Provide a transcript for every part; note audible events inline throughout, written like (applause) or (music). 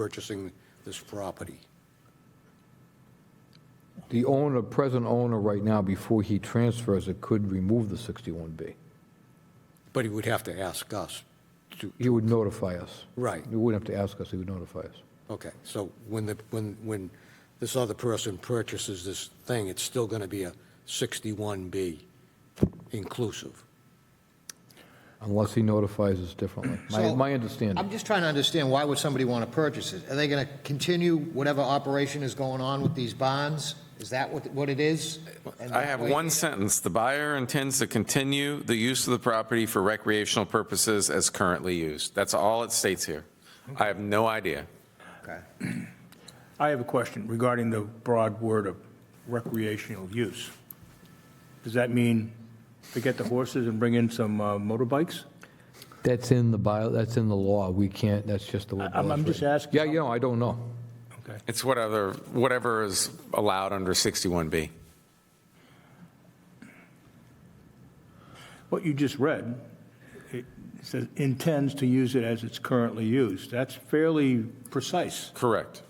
purchasing this property? The owner, present owner right now, before he transfers it, could remove the 61B. But he would have to ask us to, He would notify us. Right. He wouldn't have to ask us, he would notify us. okay, so when the, when, when this other person purchases this thing, it's still going to be a 61B inclusive? Unless he notifies us differently. My, So, my I'm understanding. just trying to understand, why would somebody want to purchase it? Are they going to continue whatever operation is going on with these bonds? Is that what, what it is? And I have wait- one sentence. The buyer intends to continue the use of the property for recreational purposes as currently used. That's all it states here. I have no idea. Okay. I have a question regarding the broad word of recreational use. Does that mean forget the horses and bring in some uh, motorbikes? That's in the bio, that's in the law. We can't, that's just the way. the I'm- I'm law's just written. asking. Yeah, you know, I don't know. Okay. It's whatever, whatever is allowed under 61B. What you just read, it says intends to use it as it's currently used. That's fairly precise. Correct.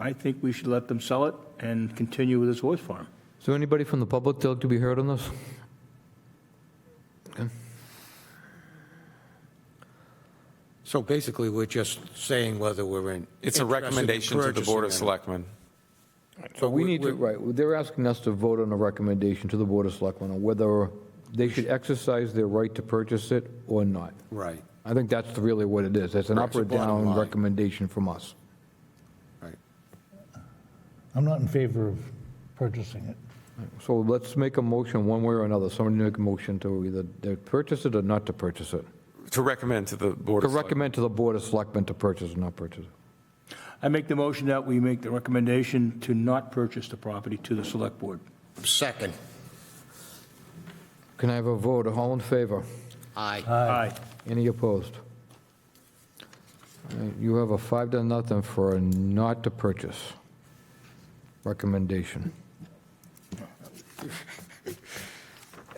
I think we should let them sell it and continue with this horse farm. Is there anybody from the public that to be heard on this? So basically, we're just saying whether we're in. It's interested a in recommendation to the Board of purchasing or not. Selectmen. So We need to, right, they're asking us to vote on a recommendation to the Board of Selectmen on whether they should exercise their right to purchase it or not. Right, I think that's really what it is. It's an up It's the or bottom down line. recommendation from us. right. I'm not in favor of purchasing it. So let's make a motion one way or another. Somebody make a motion to either to purchase it or not to purchase it. To recommend to the Board To of Selectmen. recommend to the Board of Selectmen to purchase or not purchase it. I make the motion that we make the recommendation to not purchase the property to the select board. Second. Can I have a vote? All in favor? Aye. Aye. Any opposed? All right, You have a five to nothing for a not to purchase recommendation. (laughs)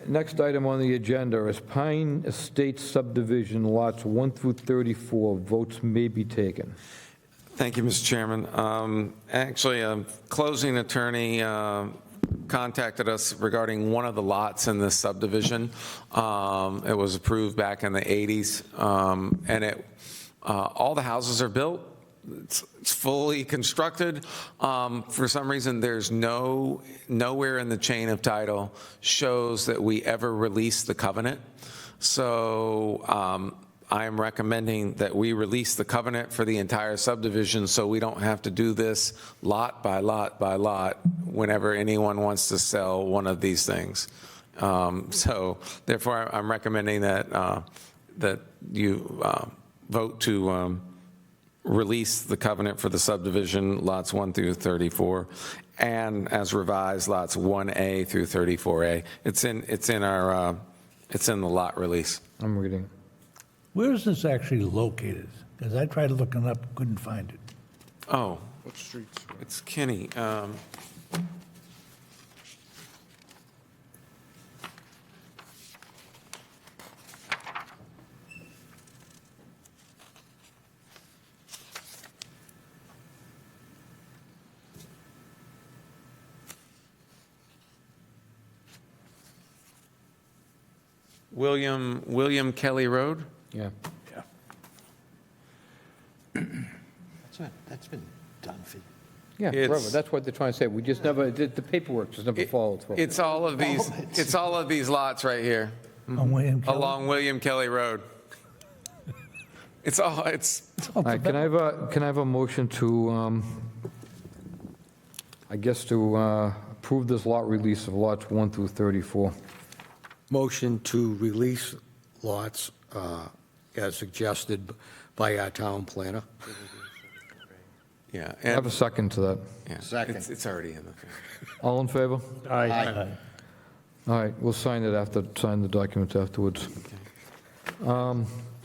Next item on the agenda is Pine Estates subdivision lots 1 through 34, votes may be taken. Thank you, Mr. Chairman. Um, Actually, a closing attorney uh, contacted us regarding one of the lots in this subdivision. Um, It was approved back in the 80s, um, and it, uh, all the houses are built, it's it's fully constructed. Um, For some reason, there's no, nowhere in the chain of title shows that we ever released the covenant. So um, I am recommending that we release the covenant for the entire subdivision so we don't have to do this lot by lot by lot whenever anyone wants to sell one of these things. Um, So therefore, I'm recommending that, uh, that you uh, vote to um, release the covenant for the subdivision lots 1 through 34 and as revised lots 1A through 34A. It's in, it's in our, uh, it's in the lot release. I'm reading. Where is this actually located? Because I tried looking up, couldn't find it. Oh. What streets? It's Kenny. um, William, William Kelly Road? Yeah. That's not- That's been done for Yeah, It's- forever. That's what they're trying to say. We just never, the the paperwork just never followed through. It's all of (laughs) these, it's all of these lots right here. On William Kelly? along William Kelly Road. It's all, it's, All right, can I have a, can I have a motion to, um, I guess to uh, approve this lot release of lots 1 through 34? Motion to release lots uh, as suggested by our town planner. yeah. Have a second to that. Second. It's, it's already in the, All in favor? Aye. All right, we'll sign it after, sign the documents afterwards.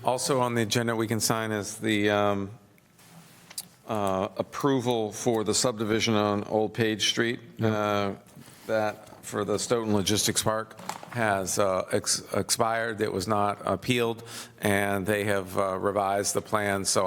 also on the agenda we can sign is the um, uh, approval for the subdivision on Old Page Street. uh, That for the Stoughton Logistics Park has uh, ex- expired. It was not appealed, and they have uh, revised the plan, so